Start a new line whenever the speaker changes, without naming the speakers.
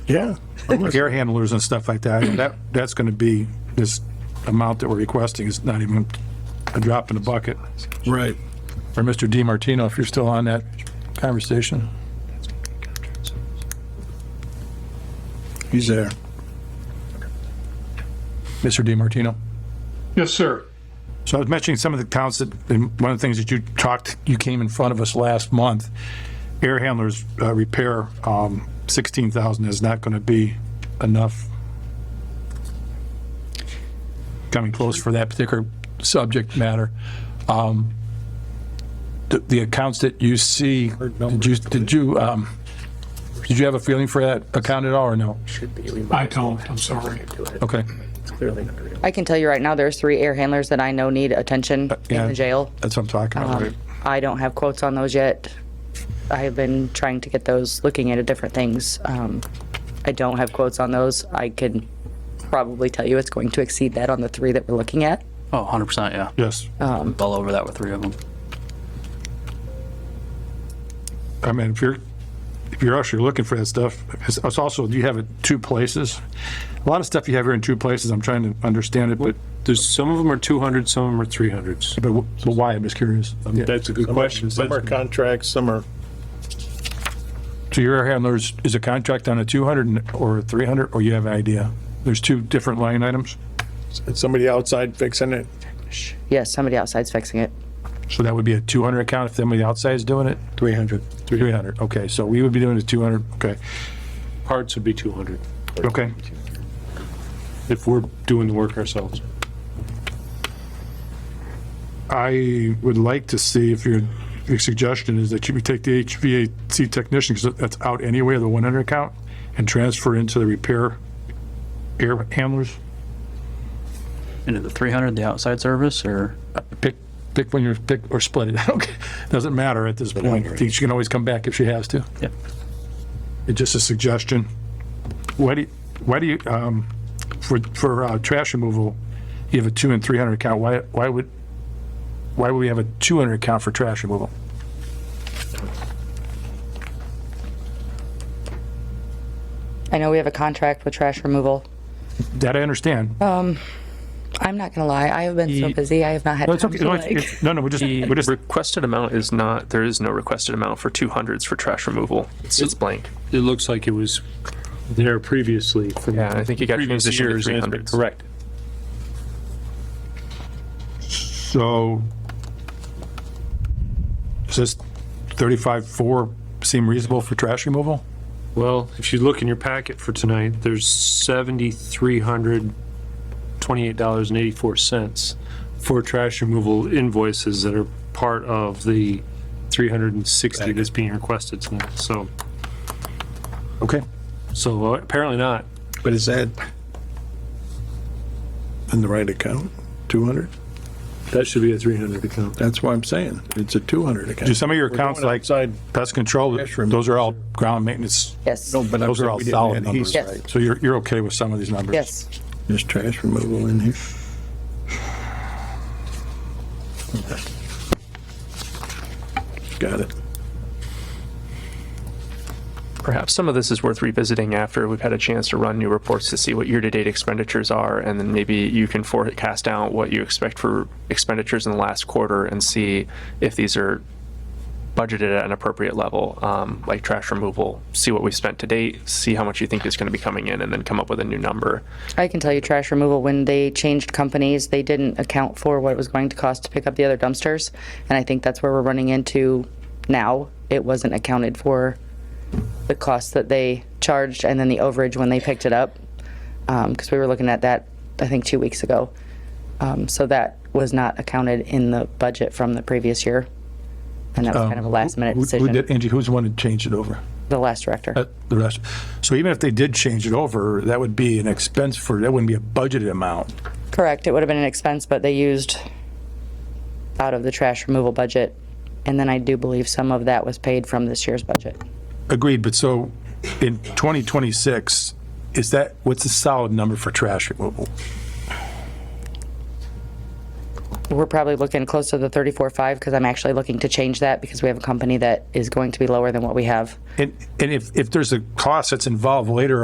Yeah. Like air handlers and stuff like that, that, that's gonna be, this amount that we're requesting is not even a drop in the bucket.
Right.
Or Mr. Di Martino, if you're still on that conversation.
He's there.
Mr. Di Martino.
Yes, sir.
So I was mentioning some of the counts that, and one of the things that you talked, you came in front of us last month, air handlers uh, repair, um, 16,000 is not going to be enough. Coming close for that particular subject matter. Um, The, the accounts that you see, did you, did you, um, did you have a feeling for that account at all or no?
I don't, I'm sorry.
Okay.
I can tell you right now, there's three air handlers that I know need attention
Uh,
yeah.
in the jail.
That's what I'm talking about. right?
Um, I don't have quotes on those yet. I have been trying to get those, looking at different things. Um, I don't have quotes on those. I can probably tell you it's going to exceed that on the three that we're looking at.
Oh, 100%, yeah.
Yes.
Well over that with three of them.
I mean, if you're, if you're actually looking for that stuff, it's, it's also, you have it two places. A lot of stuff you have here in two places, I'm trying to understand it, but,
There's, some of them are 200, some of them are 300s.
but wh- but why, I'm just curious.
That's a good question.
Some are contracts, some are.
So your air handlers, is a contract on a 200 and- or a 300, or you have an idea? There's two different line items,
It's somebody outside fixing it.
Yes, somebody outside's fixing it.
so that would be a 200 account if somebody outside is doing it?
300.
300, okay, so we would be doing a 200, okay,
Parts would be 200
okay.
if we're doing the work ourselves.
I would like to see if your, your suggestion is that you would take the HVAC technician, because that's out anyway, the 100 account, and transfer into the repair air handlers.
Into the 300, the outside service, or?
Pick, pick when you're, pick, or split it, okay, doesn't matter at this point. She can always come back if she has to.
Yep.
It's just a suggestion. Why do, you- why do you, um, for, for uh, trash removal, you have a 2 and 300 account, why, why would, why would we have a 200 account for trash removal?
I know we have a contract with trash removal.
That I understand,
I'm not gonna lie, I have been so
Ye-
busy, I have not had
No, it's
time
okay.
to
No, it's-
like.
it's- no, no, we're just, we're
The
just,
requested amount is not, there is no requested amount for 200s for trash removal. It's it's blank.
It looks like it was there previously from
Yeah, I think it got
previous
transitioned to
years. and it's been
300s.
Correct.
so. Does this thirty-five, four seem reasonable for trash removal?
Well, if you look in your packet for tonight, there's $7,328.84 for trash removal invoices that are part of the 360 that's being requested tonight. So,
Okay.
so uh, apparently not.
But is that in the right account? 200?
That should be a 300 account.
That's what I'm saying. It's a 200
Do
account.
some of your accounts like
Outside,
pest control,
Trash removal.
those are all ground maintenance,
Yes,
no, but I'm
those are
saying
all
we didn't
solid
add heat.
numbers.
Yes. right?
So you're, you're okay with some of these numbers?
yes.
There's trash removal in here. Got it.
Perhaps some of this is worth revisiting after we've had a chance to run new reports to see what year-to-date expenditures are, and then maybe you can forecast out what you expect for expenditures in the last quarter and see if these are budgeted at an appropriate level, um, like trash removal. See what we've spent to date, see how much you think is going to be coming in, and then come up with a new number.
I can tell you trash removal, when they changed companies, they didn't account for what it was going to cost to pick up the other dumpsters. And I think that's where we're running into now. It wasn't accounted for the cost that they charged and then the overage when they picked it up. Um, cause we were looking at that, I think, two weeks ago. Um, so that was not accounted in the budget from the previous year. And that was kind of a last minute
Oh. Who- who
decision,
did- Angie, who's the one that changed it over?
the last director.
Uh, The rest, so even if they did change it over, that would be an expense for, that wouldn't be a budgeted amount.
Correct, it would have been an expense, but they used out of the trash removal budget. And then I do believe some of that was paid from this year's budget.
Agreed, but so in 2026, is that, what's a solid number for trash removal?
We're probably looking close to the 34.5 because I'm actually looking to change that because we have a company that is going to be lower than what we have.
And, and if, if there's a cost that's involved later